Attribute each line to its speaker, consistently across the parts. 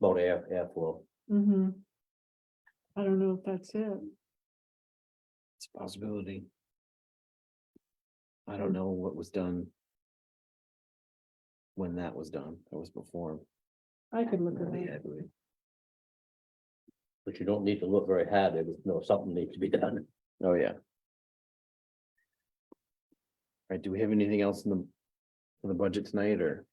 Speaker 1: about air, airflow.
Speaker 2: Mm-hmm. I don't know if that's it.
Speaker 3: It's a possibility. I don't know what was done. When that was done, that was before.
Speaker 2: I could look at
Speaker 3: Melody, I
Speaker 2: that.
Speaker 3: believe.
Speaker 1: But you don't need to look very hard, there was, no, something needs to be done.
Speaker 3: Oh, yeah. Right, do we have anything else in the, in the budget tonight, or?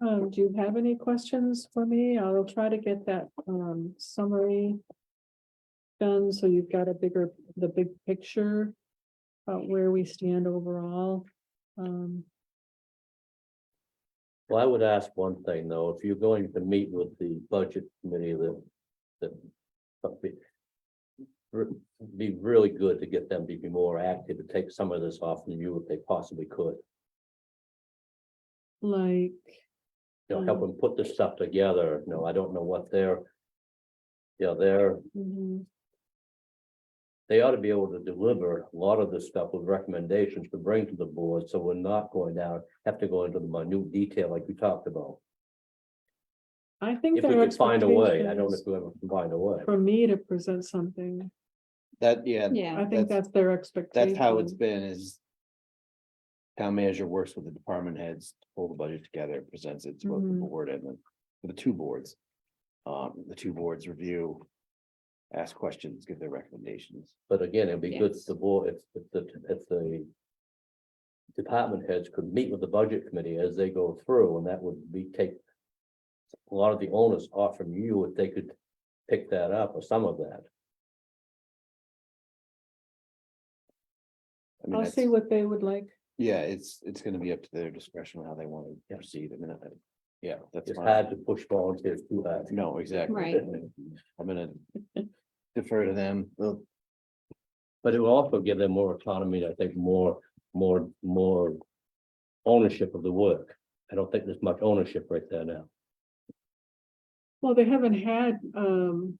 Speaker 2: Um, do you have any questions for me? I'll try to get that, um, summary. Done, so you've got a bigger, the big picture. About where we stand overall. Um,
Speaker 1: Well, I would ask one thing, though, if you're going to meet with the budget committee, that, that. but be- re- Be really good to get them to be more active, to take some of this off from you if they possibly could,
Speaker 2: like,
Speaker 1: you know, help
Speaker 2: Mm.
Speaker 1: them put this stuff together, no, I don't know what their. You know, their
Speaker 2: mhm,
Speaker 1: they ought to be able to deliver a lot of this stuff with recommendations to bring to the board, so we're not going down, have to go into the minute detail like we talked about.
Speaker 2: I think.
Speaker 1: If we
Speaker 2: their
Speaker 1: could find a way, I don't know if
Speaker 2: expectations
Speaker 1: we ever can find a way.
Speaker 2: For me to present something,
Speaker 3: That,
Speaker 2: I
Speaker 3: yeah,
Speaker 4: Yeah,
Speaker 2: think that's their expectation.
Speaker 3: that's how it's been, is. Town manager works with the department heads, to pull the budget together, presents it to both the
Speaker 2: Mhm.
Speaker 3: board and the, the two boards. Um, the two boards review. Ask questions, give their recommendations.
Speaker 1: But again, it'd be good if
Speaker 4: Yes.
Speaker 1: the board, if, if the, if the. Department heads could meet with the budget committee as they go through, and that would be take. A lot of the onus off from you if they could pick that up or some of that.
Speaker 3: I mean,
Speaker 2: I'll
Speaker 3: that's-
Speaker 2: see what they would like.
Speaker 3: Yeah, it's, it's gonna be up to their discretion how they want to proceed, I mean, I, yeah, that's.
Speaker 1: It's
Speaker 3: fine.
Speaker 1: hard to push volunteers too hard.
Speaker 3: No, exactly.
Speaker 4: Right.
Speaker 3: I'm gonna defer to them, They'll-
Speaker 1: But it will also give them more autonomy, I think, more, more, more ownership of the work. I don't think there's much ownership right there now.
Speaker 2: Well, they haven't had um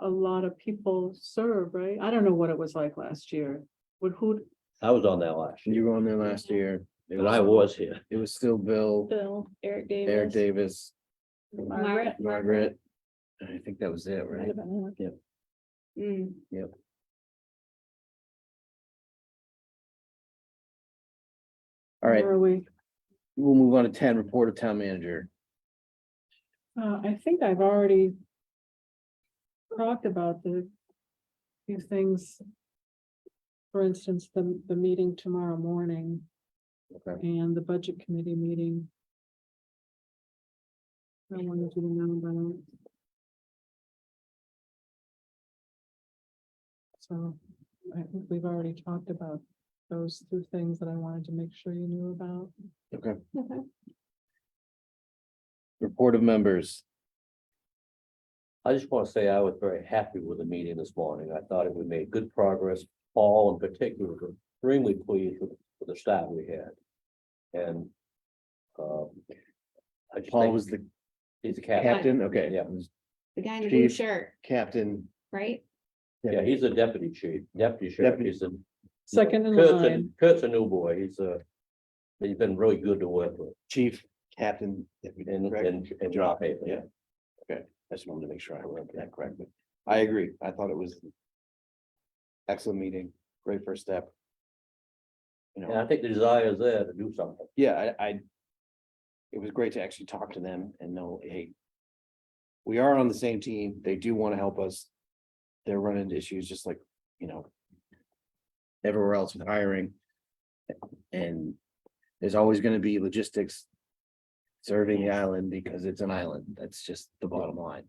Speaker 2: a lot of people serve, right? I don't know what it was like last year. Would who?
Speaker 1: I was on that last year,
Speaker 3: you were on there last year. It
Speaker 1: and I was here.
Speaker 3: It was still Bill,
Speaker 4: Bill, Eric Davis.
Speaker 3: Eric Davis,
Speaker 4: Margaret.
Speaker 3: Margaret, and I think that was it, right?
Speaker 4: Mm,
Speaker 3: All right,
Speaker 2: where are we?
Speaker 3: we'll move on to ten, report of town manager,
Speaker 2: Uh, I think I've already talked about the few things. For instance, the the meeting tomorrow morning
Speaker 3: Okay.
Speaker 2: and the budget committee meeting. I wanted you to know about. it. So I think we've already talked about those two things that I wanted to make sure you knew about.
Speaker 3: okay,
Speaker 4: okay.
Speaker 3: report of members,
Speaker 1: I just want to say I was very happy with the meeting this morning. I thought it we made good progress. Paul in particular, was extremely pleased with with the staff we had. And um, I just
Speaker 3: Paul
Speaker 1: think
Speaker 3: was the
Speaker 1: he's a captain.
Speaker 3: captain, okay.
Speaker 1: Yeah.
Speaker 3: it was
Speaker 4: The guy in the blue
Speaker 3: Chief.
Speaker 4: shirt,
Speaker 3: Captain,
Speaker 4: right?
Speaker 1: Yeah, he's a deputy chief, deputy sheriff.
Speaker 3: Deputy.
Speaker 1: He's a
Speaker 2: Second in
Speaker 1: Kurt's a-
Speaker 2: line.
Speaker 1: Kurt's a new boy. He's a, he's been really good to work with.
Speaker 3: chief, captain. deputy,
Speaker 1: And,
Speaker 3: correct?
Speaker 1: and, and drop paper, yeah.
Speaker 3: I just wanted to make sure I read that correctly. I agree. I thought it was. Excellent meeting, great first step. You
Speaker 1: And I
Speaker 3: know,
Speaker 1: think the desire is there to do something.
Speaker 3: yeah, I, I. It was great to actually talk to them and know, hey. We are on the same team. They do want to help us. They're running into issues just like, you know. Everywhere else with hiring. And there's always gonna be logistics. Serving the island because it's an island. That's just the bottom line.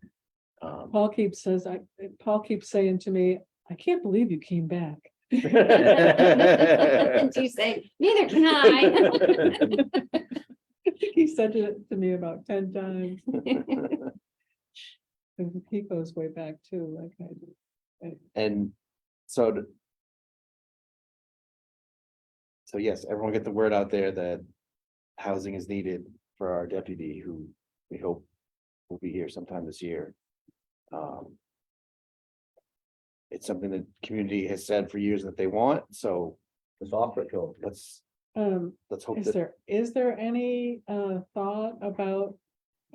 Speaker 3: Um,
Speaker 2: Paul keeps says, I, Paul keeps saying to me, I can't believe you came back.
Speaker 4: And you say, neither can I.
Speaker 2: I think He said it to me about ten times. And He goes way back too, like I do.
Speaker 3: And so. to- So yes, everyone get the word out there that housing is needed for our deputy who we hope will be here sometime this year. Um, It's something that community has said for years that they want, so
Speaker 1: It's offer it to him.
Speaker 3: let's,
Speaker 2: Um,
Speaker 3: let's hope
Speaker 2: is
Speaker 3: that,
Speaker 2: there, is there any uh thought about